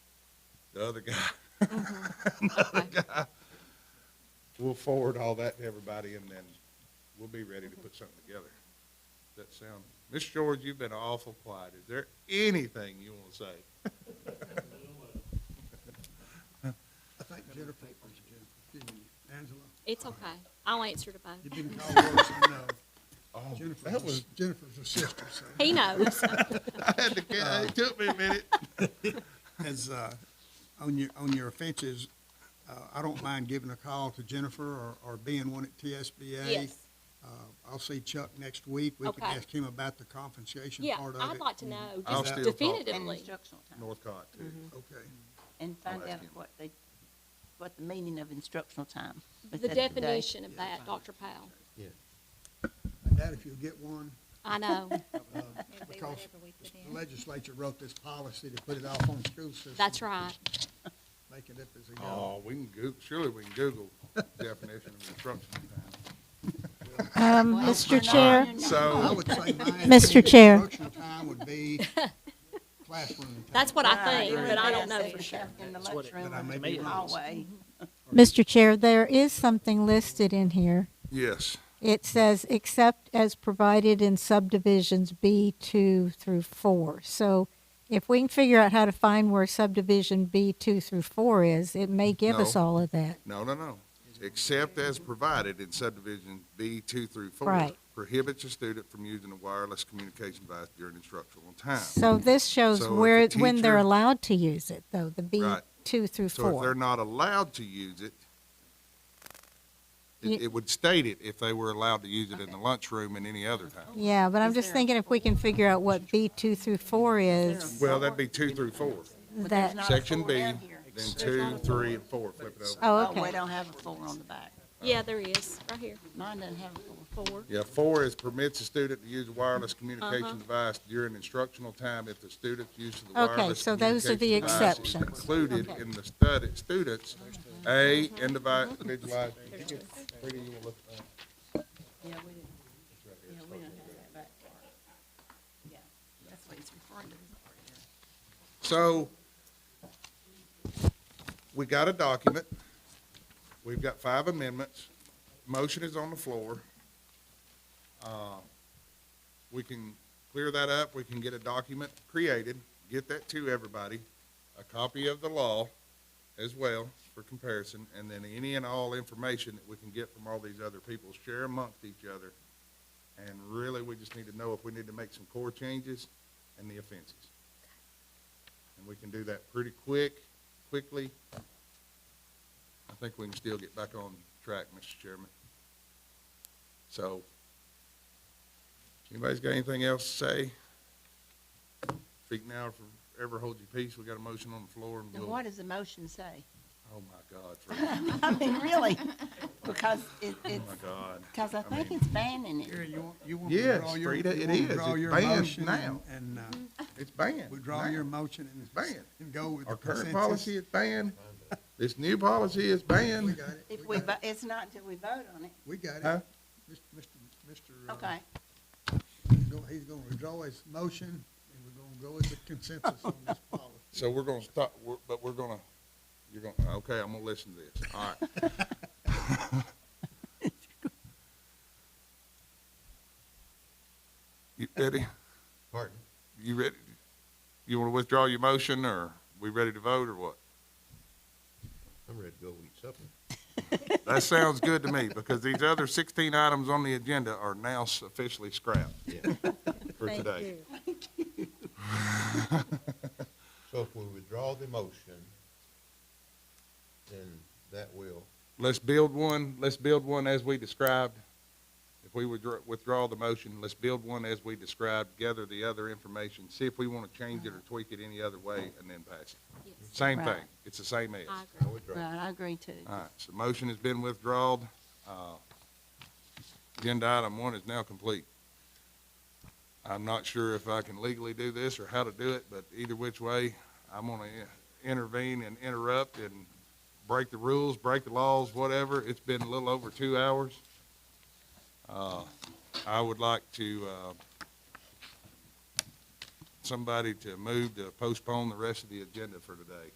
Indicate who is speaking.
Speaker 1: the other guy, the other guy. We'll forward all that to everybody and then we'll be ready to put something together. Does that sound, Ms. George, you've been awful quiet. Is there anything you want to say?
Speaker 2: I think Jennifer, excuse me, Angela,
Speaker 3: It's okay. I'll answer to
Speaker 2: you've
Speaker 3: both.
Speaker 2: been called worse than, uh,
Speaker 1: Oh, that
Speaker 2: Jennifer's,
Speaker 1: was,
Speaker 2: Jennifer's a sister, so.
Speaker 3: He knows.
Speaker 1: I had to, ca- it took me a minute.
Speaker 2: As, uh, on your, on your offenses, uh, I don't mind giving a call to Jennifer or, or being one at TSBA.
Speaker 3: Yes.
Speaker 2: Uh, I'll see Chuck next week. We can
Speaker 3: Okay.
Speaker 2: ask him about the compensation
Speaker 3: Yeah,
Speaker 2: part of it.
Speaker 3: I'd like to know
Speaker 1: I'll
Speaker 3: just
Speaker 1: still talk to him.
Speaker 4: And
Speaker 3: definitively.
Speaker 4: instructional time,
Speaker 1: Northcott too.
Speaker 2: Mm-hmm. Okay.
Speaker 4: and find
Speaker 1: ask
Speaker 4: out
Speaker 1: him.
Speaker 4: what they, what the meaning of instructional time. Is
Speaker 3: The
Speaker 4: that today?
Speaker 3: definition of that, Dr. Powell.
Speaker 2: And that if you'll get one,
Speaker 3: I know.
Speaker 2: because the legislature wrote this policy to put it off on school system.
Speaker 3: That's right.
Speaker 2: Make it up as they go.
Speaker 1: Oh, we can Google, surely we can Google definition of instructional time.
Speaker 5: Um,
Speaker 4: Well, we're
Speaker 5: Mr.
Speaker 4: not
Speaker 5: Chair,
Speaker 4: here now.
Speaker 2: I
Speaker 1: So,
Speaker 2: would say my.
Speaker 5: Mr. Chair.
Speaker 2: Instructional time would be classroom time.
Speaker 3: That's what I
Speaker 4: Right,
Speaker 3: think,
Speaker 4: it
Speaker 3: but I
Speaker 4: would
Speaker 3: don't
Speaker 4: be
Speaker 3: know
Speaker 4: safe
Speaker 3: for sure.
Speaker 4: In the
Speaker 6: That's what it-
Speaker 4: lunchroom
Speaker 2: But I
Speaker 4: or
Speaker 2: may
Speaker 4: in
Speaker 2: be
Speaker 4: the
Speaker 2: wrong.
Speaker 4: hallway.
Speaker 5: Mr. Chair, there is something listed in here.
Speaker 1: yes,
Speaker 5: It says, except as provided in subdivisions B2 through 4. So if we can figure out how to find where subdivision B2 through 4 is, it may give us
Speaker 1: No.
Speaker 5: all of that.
Speaker 1: no, no, no. Except as provided in subdivision B two through four.
Speaker 5: Right.
Speaker 1: Prohibits a student from using a wireless communication device during instructional time.
Speaker 5: So this shows
Speaker 1: So if
Speaker 5: where,
Speaker 1: the
Speaker 5: when
Speaker 1: teacher-
Speaker 5: they're allowed to use it, though, the
Speaker 1: Right.
Speaker 5: B2 through
Speaker 1: So if they're
Speaker 5: 4.
Speaker 1: not allowed to use it,
Speaker 5: Ye-
Speaker 1: it, it would state it if they were allowed to use it in the lunchroom and any other time.
Speaker 5: Yeah, but I'm
Speaker 4: Is
Speaker 5: just
Speaker 4: there-
Speaker 5: thinking if we can figure out what B2 through 4 is,
Speaker 1: Well, that'd be two through four.
Speaker 3: Mm-hmm.
Speaker 4: But
Speaker 5: that,
Speaker 4: there's not a
Speaker 1: Section
Speaker 4: floor
Speaker 1: B,
Speaker 4: down
Speaker 1: then
Speaker 4: here.
Speaker 1: two, three, and four, flip it over.
Speaker 5: oh,
Speaker 4: Oh, we
Speaker 5: okay.
Speaker 4: don't have a floor on the back.
Speaker 3: Yeah, there is, right here,
Speaker 4: Mine doesn't have a floor.
Speaker 3: four.
Speaker 1: Yeah, four is permits a student to use a
Speaker 5: Uh-huh.
Speaker 1: wireless communication device during instructional time if the student's use of the
Speaker 5: Okay,
Speaker 1: wireless
Speaker 5: so those are the
Speaker 1: communication device is
Speaker 5: exceptions.
Speaker 1: Included in the study, students, A,
Speaker 5: Uh-huh.
Speaker 1: individualized. Rita, you wanna look uh, at that?
Speaker 4: Yeah, we didn't, yeah, we don't have that back part. Yeah, that's what it's referring to.
Speaker 1: So, we got a document, we've got five amendments, motion is on the floor. Uh, We can clear that up, we can get a document created, get that to everybody, a copy of the law as well for comparison, and then any and all information that we can get from all these other people, share amongst each other. And really, we just need to know if we need to make some core changes and the offenses. And we can do that pretty quick, quickly. I think we can still get back on track, Mr. Chairman. So, anybody's got anything else to say? Speak now or forever hold your peace. We got a motion on the floor and
Speaker 4: Now,
Speaker 1: we'll,
Speaker 4: what does the motion say?
Speaker 1: oh my God, Fred.
Speaker 4: I mean, really, because it,
Speaker 1: oh
Speaker 4: it's,
Speaker 1: my God.
Speaker 4: because I think
Speaker 1: mean-
Speaker 4: it's banning it.
Speaker 2: Gary, you want, you want
Speaker 1: Yes,
Speaker 2: to withdraw your,
Speaker 1: Frida,
Speaker 2: you
Speaker 1: it
Speaker 2: want to
Speaker 1: is.
Speaker 2: withdraw
Speaker 1: It's
Speaker 2: your
Speaker 1: banned
Speaker 2: motion
Speaker 1: now.
Speaker 2: and, and, uh,
Speaker 4: Mm-hmm.
Speaker 1: It's banned.
Speaker 2: withdraw
Speaker 1: now.
Speaker 2: your motion and.
Speaker 1: Banned.
Speaker 2: And go with the
Speaker 1: Our current
Speaker 2: consensus.
Speaker 1: policy is banned. This new policy is
Speaker 2: We
Speaker 1: banned.
Speaker 2: got it.
Speaker 4: If we, vo- it's not until we vote on it.
Speaker 2: We got it.
Speaker 1: Huh?
Speaker 2: Mr. Mr. Mr. uh,
Speaker 4: Okay,
Speaker 2: go- He's gonna withdraw his motion and we're gonna go with the consensus on this policy.
Speaker 1: So we're gonna stop, we're, but we're gonna, you're gonna, okay, I'm gonna listen to this, all right. You ready?
Speaker 7: Pardon?
Speaker 1: You ready? You wanna withdraw your motion, or we ready to vote, or what?
Speaker 7: I'm ready to go eat supper.
Speaker 1: That sounds good to me, because these other sixteen items on the agenda are now officially scrapped
Speaker 7: Yeah.
Speaker 1: for today.
Speaker 7: So if we withdraw the motion, then that will,
Speaker 1: Let's build one, let's build one as we described. If we withdraw, withdraw the motion, let's build one as we described, gather the other information, see if we want to change it or tweak it any other way, and then pass it.
Speaker 3: Yes,
Speaker 1: Same
Speaker 4: Right.
Speaker 1: thing, it's the same as.
Speaker 3: I
Speaker 1: All
Speaker 3: agree.
Speaker 7: I withdraw.
Speaker 4: right, I agree too.
Speaker 1: right, so motion has been withdrawn. Uh, Agenda item one is now complete. I'm not sure if I can legally do this or how to do it, but either which way, I'm gonna i- intervene and interrupt and break the rules, break the laws, whatever. It's been a little over two hours. Uh, I would like to, uh, somebody to move to postpone the rest of the agenda for today.